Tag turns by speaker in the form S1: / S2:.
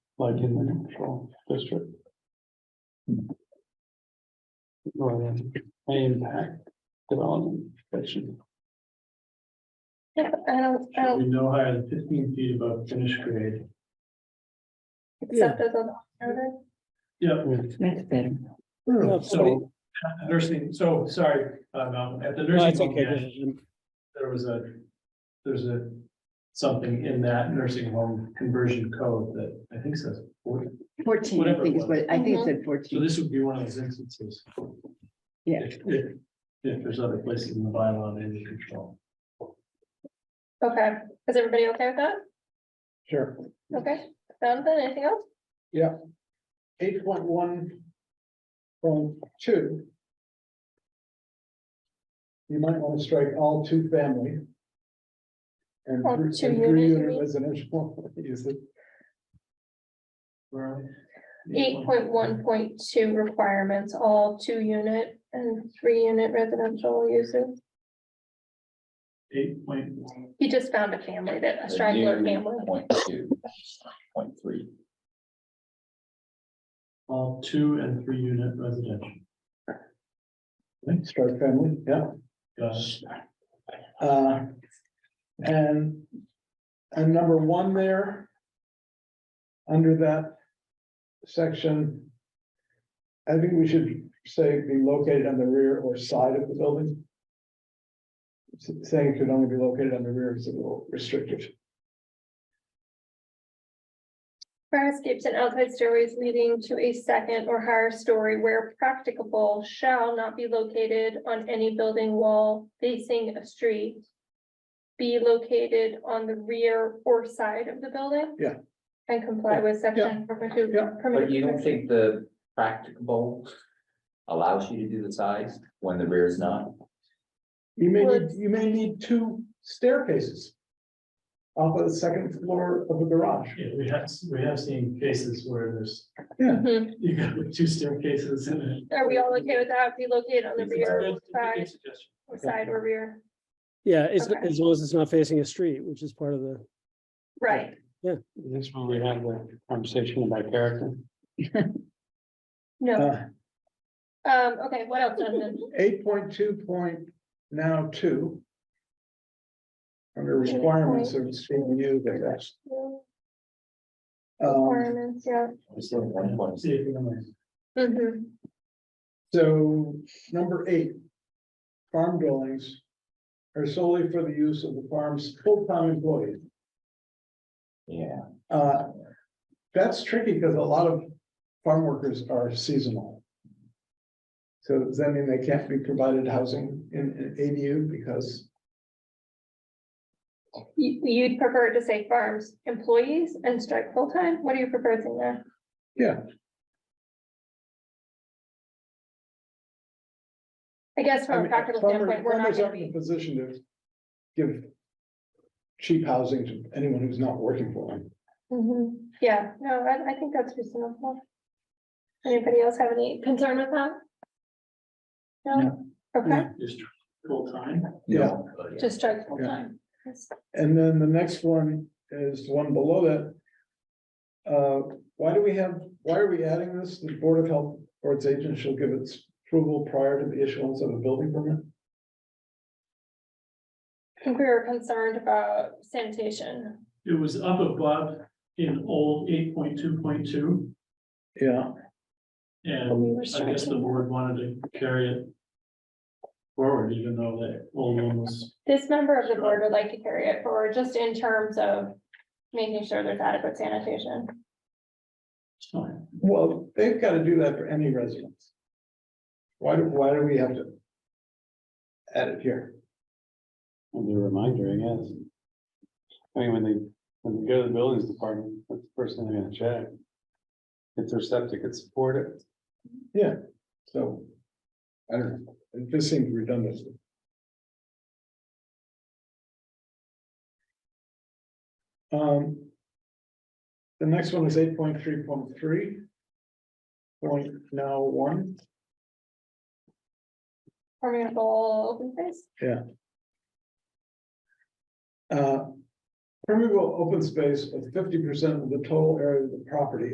S1: like in the control district. Or the impact development. section.
S2: Yep, I don't, I
S3: Should
S2: don't
S3: be no higher than fifteen feet above finished grade.
S2: accept those on the order.
S3: Yeah,
S4: That's better.
S3: so, at the nursing, so, sorry, uh, Malcolm, at the
S5: No,
S3: nursing
S5: it's
S3: home,
S5: okay.
S3: yeah,
S5: this is-
S3: there was a, there's a, something in that nursing home conversion code that I think says. 40.
S4: Fourteen, I
S3: Whatever
S4: think
S3: it
S4: is what, I think it said
S3: So
S4: fourteen.
S3: this would be one of those instances.
S4: Yeah.
S3: If, if, if there's other places in the bylaw that you control.
S2: Okay, is everybody okay with that?
S1: Sure.
S2: Okay, Jonathan, anything else?
S1: Eight point one. Point two. You might want to strike all two family. And
S2: All
S1: three
S2: Oh, two
S1: and
S2: unit,
S1: three
S2: you
S1: unit
S2: mean?
S1: residential. Is it
S3: Where are we?
S2: Eight point one point two requirements, all two unit and three unit residential uses.
S3: Eight point one.
S2: He just found a family that, a
S6: The
S2: straggler
S6: new
S2: family.
S6: Point two, point three.
S3: All two and three unit residential.
S1: strike family? Yeah.
S3: Got it.
S1: Uh, And, and number one there. Under that section. I think we should say be located on the rear or side of the building. S- Saying it could only be located on the rear is a little restrictive.
S2: Fire escapes and outside stairways leading to a second or higher story where practicable shall not be located on any building wall facing a street. Be located on the rear or side of the building.
S1: Yeah.
S2: And comply with section. permitted-
S1: Yeah.
S2: permitted
S6: But you don't think the practicable allows you to do the size when the rear is not?
S1: You may
S2: Well,
S1: need, you may need two staircases. Off of the second floor of a garage.
S3: Yeah, we have, we have seen cases where there's,
S2: Mhm.
S3: you got like two staircases in it.
S2: Are we all okay with that? Be located on the
S3: It's a
S2: rear,
S3: good-
S2: or
S3: it's a good
S2: side,
S3: suggestion.
S2: or side or rear,
S5: Yeah, as,
S2: Okay.
S5: as long as it's not facing a street, which is part of the,
S2: right?
S1: This is where we have the conversation about character.
S2: No,
S1: Uh.
S2: um, okay, what else, Jonathan?
S1: Eight point two point now two. Under requirements of CMU, that's, um,
S2: Requirements, yeah.
S6: It's like one point
S3: See if you can-
S2: Mhm.
S1: so number eight. Farm dwellings. Are solely for the use of the farm's full-time employees.
S6: Yeah,
S1: Uh, that's tricky because a lot of farm workers are seasonal. So does that mean they can't be provided housing in, in ADU because
S2: You, you'd prefer to say farms, employees and strike full-time? What are you proposing there?
S1: Yeah.
S2: I guess
S1: I
S2: from a
S1: mean,
S2: practical
S1: farmer-
S2: standpoint, we're not
S1: farmers
S2: gonna
S1: aren't in a
S2: be,
S1: position to give cheap housing to anyone who's not working for them.
S2: Mhm. yeah, no, I, I think that's reasonable. Anybody else have any concern with that? No, okay,
S3: Just full time.
S1: Yeah,
S2: just strike full-time. Yes.
S1: and then the next one is the one below that. Uh, why do we have, why are we adding this? The Board of Health or its agent shall give its approval prior to the issuance of a building permit?
S2: I think we were concerned about sanitation.
S3: It was up above in old eight point two point two,
S1: Yeah,
S2: We
S3: and
S2: were
S3: I guess the
S2: striking.
S3: board wanted to carry it forward, even though that old one was,
S2: This member of the
S3: Sure.
S2: board would like to carry it forward, just in terms of making sure there's adequate sanitation.
S3: it's fine.
S1: well, they've got to do that for any residence. Why do, why do we have to? Add it here?
S7: Well, The reminder, I guess. I mean, when they, when they go to the buildings department, that's the first thing they're gonna check. If their septic could support it,
S1: So. I don't know, it just seems redundant. Um. The next one is eight point three point three. Point now one,
S2: permeable open space.
S1: uh. Permeable open space of fifty percent of the total area of the property